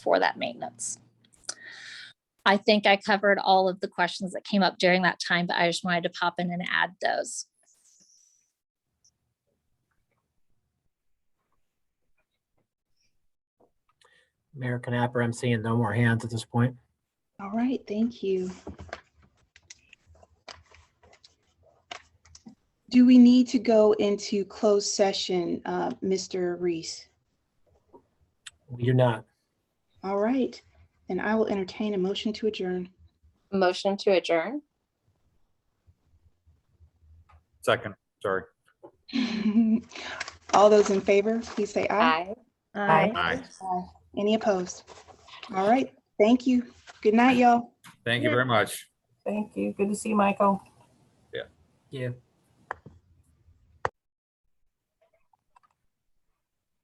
for that maintenance. I think I covered all of the questions that came up during that time, but I just wanted to pop in and add those. American Apper, I'm seeing no more hands at this point. All right, thank you. Do we need to go into closed session, uh, Mr. Reese? We do not. All right, then I will entertain a motion to adjourn. Motion to adjourn? Second, sorry. All those in favor, please say aye. Aye. Aye. Aye. Any opposed? All right, thank you. Good night, y'all. Thank you very much. Thank you. Good to see you, Michael. Yeah.